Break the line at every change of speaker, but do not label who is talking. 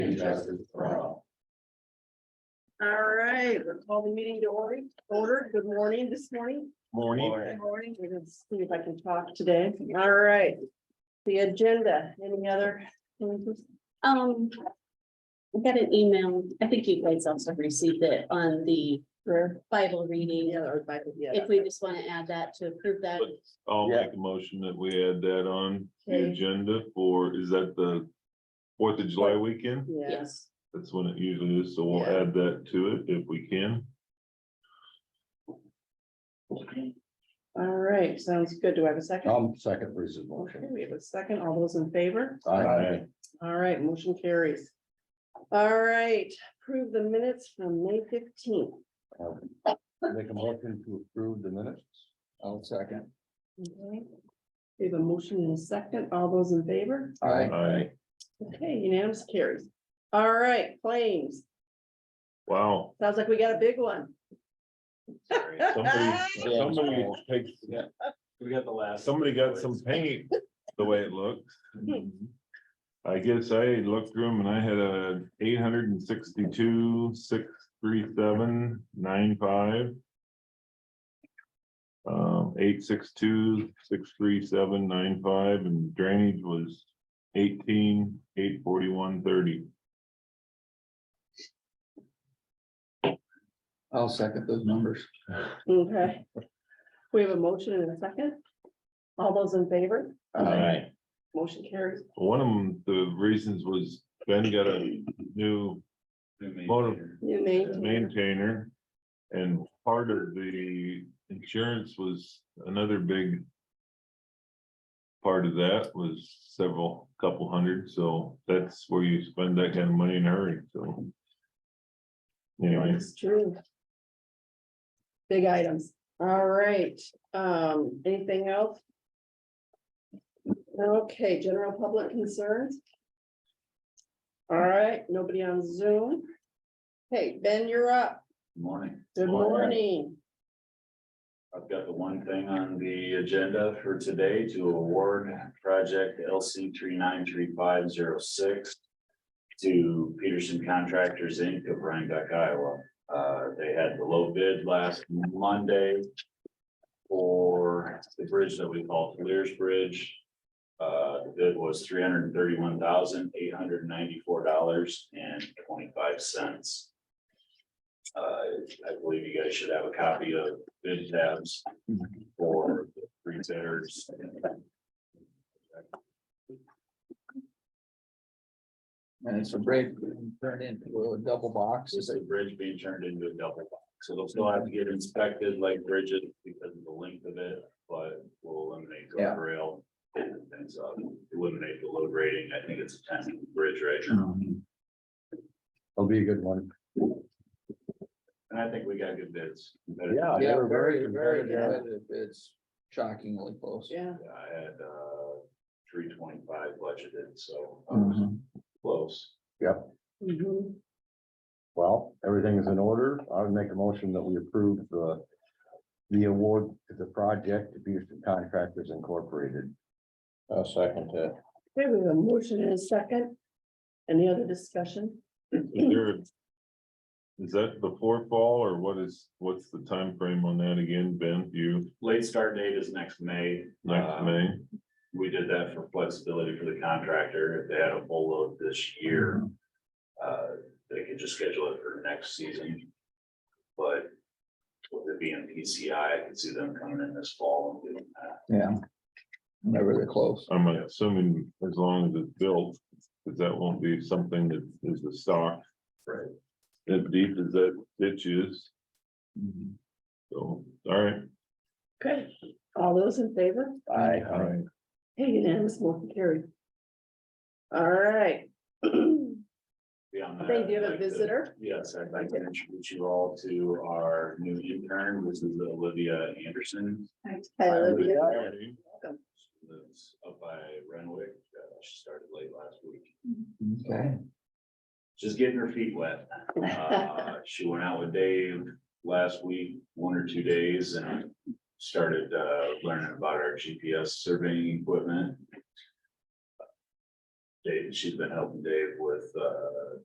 justice for all.
All right, we'll call the meeting to order, order, good morning this morning.
Morning.
morning. We're gonna see if I can talk today, all right. The agenda, any other?
Um. I got an email, I think you guys also received it on the Bible reading,
or by the- yeah.
if we just want to add that to approve that.
I'll
Yeah.
make a motion that we add that on the
Okay.
agenda for, is that the Fourth of July weekend?
Yeah.
Yes,
That's when it usually is, so we'll
Yeah.
add that to it if we can.
All right, sounds good, do I have a
Oh.
second?
I'm second Bruce's
Okay,
motion.
we have a second, all those in favor?
Aye.
All right, motion carries. All right, approve the minutes from May fifteenth.
Make a motion to approve the minutes. I'll second.
Okay. We have a motion and a second, all those in favor?
Aye.
Okay, unanimous carries. All right, claims,
Wow,
sounds like we got a big one.
somebody, somebody takes,
We got the last.
somebody got some paint, the way it looks. I guess I looked through them and I had a eight hundred and sixty-two, six, three, seven, nine, five. Um, eight, six, two, six, three, seven, nine, five, and drainage was eighteen, eight, forty-one, thirty.
I'll second those numbers.
Okay. We have a motion and a second. All those in favor,
Aye.
motion carries.
One of them, the reasons was Ben got a new Motor.
You may.
maintainer. And part of the insurance was another big. Part of that was several, couple hundred, so that's where you spend that kind of money in a hurry, so. Anyway,
It's true. Big items. All right, um, anything else? Okay, general public concerns. All right, nobody on Zoom. Hey, Ben, you're up.
Morning.
Good morning.
I've got the one thing on the agenda for today to award project LC three nine three five zero six to Peterson Contractors Inc. of Rhinebeck, Iowa. Uh, they had the low bid last Monday for the bridge that we call Lears Bridge. Uh, the bid was three hundred and thirty-one thousand, eight hundred and ninety-four dollars and twenty-five cents. Uh, I believe you guys should have a copy of bid tabs for the three bidders.
And it's a break, turned into a double box.
This is a bridge being turned into a double box, so they'll still have to get inspected like bridges because of the length of it, but we'll eliminate
Yeah.
guardrail. And things, uh, eliminate the load rating, I think it's a ten bridge right now,
Um,
That'll be a good one.
and I think we got good bids.
Yeah, very, very
competitive.
competitive. It's shockingly close.
Yeah,
I had, uh, three twenty-five budgeted, so I was
Mhm.
close.
Mhm.
Well, everything is in order. I would make a motion that we approve the the award to the project to Peterson Contractors Incorporated. I'll second that.
Okay, we have a motion and a second. Any other discussion?
is there? Is that before fall or what is, what's the time frame on that again, Ben, Do you,
Late start date is next May,
next
Uh,
May?
We did that for flexibility for the contractor. If they had a full load this year, uh, they could just schedule it for next season. But with it being PCI, I could see them coming in this fall and doing that.
Yeah. Never really close.
I'm assuming as long as it's built, because that won't be something that is a stock.
Right.
As deep as that ditch is, so, all right.
Okay, all those in favor?
I,
All right.
Hey, unanimous, motion carried. All right. They
Beyond that,
do have
I'd
a
like to-
visitor.
Yes, I'd like to introduce you all to our new intern. This is Olivia Anderson.
Hi, Olivia.
She Lives up by Renwick. Uh, She started late last week.
okay.
just getting her feet wet. Uh, She went out with Dave last week, one or two days, and started uh, learning about our GPS surveying equipment. Dave, she's been helping Dave with uh,